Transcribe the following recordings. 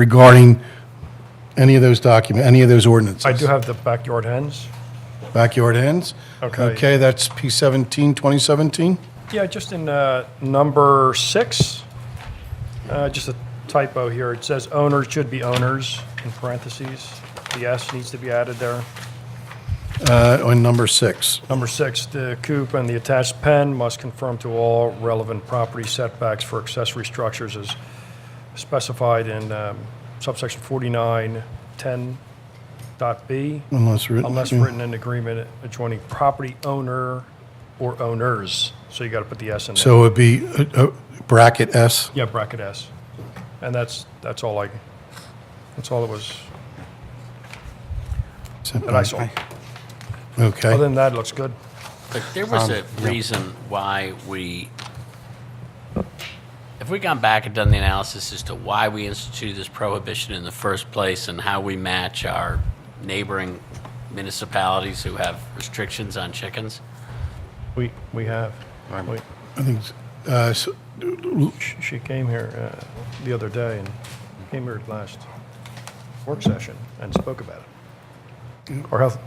regarding any of those document, any of those ordinances? I do have the backyard hens. Backyard ends? Okay. Okay, that's P 17, 2017? Yeah, just in uh, number six, uh, just a typo here. It says owners should be owners in parentheses. The S needs to be added there. Uh, On number six. Number six, the coop and the attached pen must conform to all relevant property setbacks for accessory structures as specified in um, subsection 4910 dot B, Unless written. unless written in agreement adjoining property owner or owners. So you got to put the S in there. So it'd be uh, uh, bracket S? Yeah, bracket S. And that's, that's all I, that's all it was that I saw. Okay. Other than that, it looks good. But there was Um, a reason why we, if we gone back and done the analysis as to why we instituted this prohibition in the first place and how we match our neighboring municipalities who have restrictions on chickens, We, we have. We- I think, uh, so- sh- She came here uh, the other day and came here at last work session and spoke about it. Or health.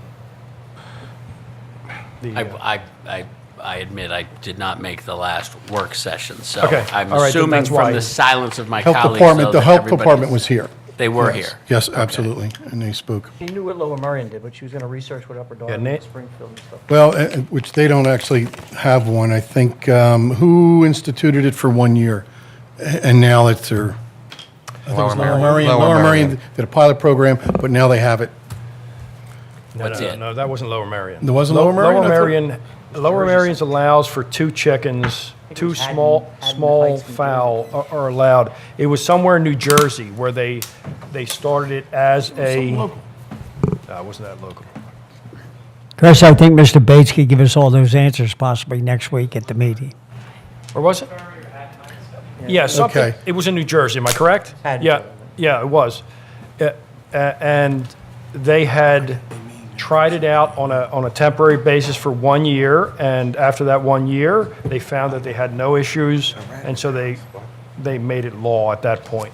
the, I, uh, I, I, I admit I did not make the last work session, so Okay, I'm all right, then assuming that's why- from the silence of my Health colleagues, Department, though, the that Health everybody- Department was here. They were Yes. here. Yes, absolutely, and they spoke. She knew what Lower Merion did, but she was going to research what Upper Darby Nate- and Springfield and stuff. Well, uh, uh, which they don't actually have one, I think. um, Who instituted it for one year? A- And now it's their. I think it was Lower Merion. Lower Merion did a pilot program, but now they have it. No, What's no, it? No, that wasn't Lower Marion. There wasn't Lo- Lower Merion? I Lower thought- Marion, Lower Marion's allows for two chickens, two was Haddon- small, Haddon small Heights, New Jersey. fowl are- are allowed. It was somewhere in New Jersey where they, they started it as a. No, it wasn't that local. Chris, I think Mr. Bates could give us all those answers possibly next week at the meeting. Or was it? Yeah, something, Okay. it was in New Jersey, am I correct? Haddon. Yeah, yeah, it was. Uh, uh, And they had tried it out on a, on a temporary basis for one year, and after that one year, they found that they had no issues, and so they, they made it law at that point.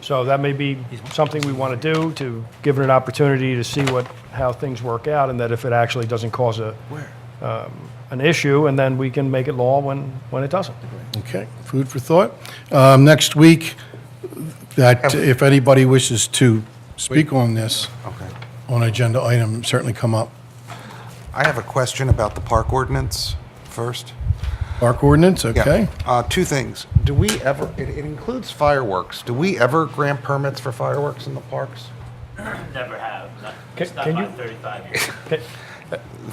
So that may be something we want to do, to give it an opportunity to see what, how things work out, and that if it actually doesn't cause a, um, an issue, and then we can make it law when, when it doesn't. Okay, food for thought. Um, Next week, that if anybody wishes to speak on this, Okay. on agenda item, certainly come up. I have a question about the park ordinance first. Park ordinance, Yeah. okay? Uh, two things. Do we ever, it, it includes fireworks. Do we ever grant permits for fireworks in the parks? Never have, not, Can- not can my you- 35 years.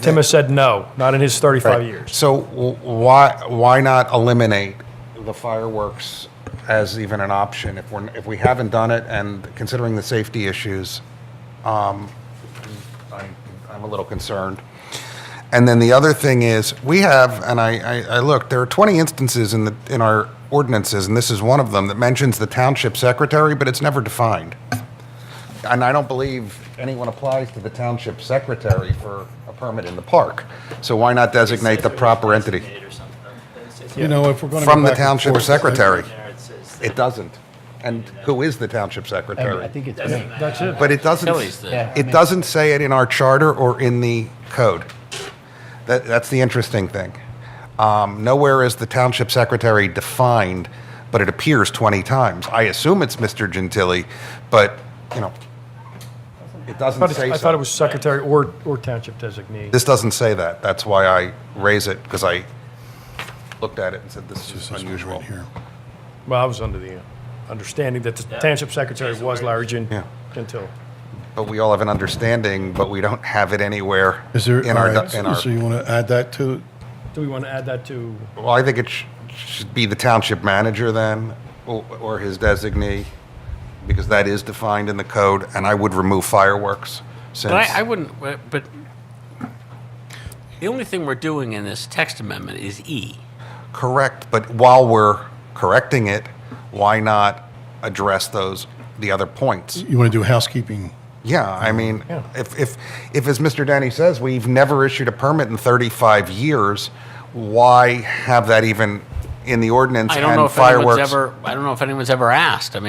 Tim has said no, not in his 35 years. So w- why, why not eliminate the fireworks as even an option if we're, if we haven't done it and considering the safety issues? Um, I'm, I'm a little concerned. And then the other thing is, we have, and I, I, I looked, there are 20 instances in the, in our ordinances, and this is one of them, that mentions the township secretary, but it's never defined. And I don't believe anyone applies to the township secretary for a permit in the park. So why not designate the proper entity? You know, if we're going to From the township secretary. It doesn't. And who is the township secretary? That's it. But it doesn't, Tilly's the- Yeah, it doesn't say it in our charter or in the code. That, that's the interesting thing. Um, nowhere is the township secretary defined, but it appears 20 times. I assume it's Mr. Gentili, but, you know, it I doesn't thought it- say I thought it so. was secretary or, or township designee. This doesn't say that. That's why I raise it, because I looked at it and said, this is unusual. Here. Well, I was under the uh, understanding that the township secretary was Larry Gin, Yeah. Gentile. But we all have an understanding, but we don't have it anywhere Is there, in all our, right, in our so you want to add that to, Do we want to add that to, Well, I think it sh- should be the township manager then, or or his designee, because that is defined in the code, and I would remove fireworks since... But I, I wouldn't, but- but the only thing we're doing in this text amendment is E. Correct, but while we're correcting it, why not address those, the other points? you want to do housekeeping? Yeah, I mean, Yeah. if, if, if, as Mr. Danny says, we've never issued a permit in 35 years, why have that even in the ordinance? I don't and know if anyone's fireworks- ever, I don't know if anyone's ever asked. I mean,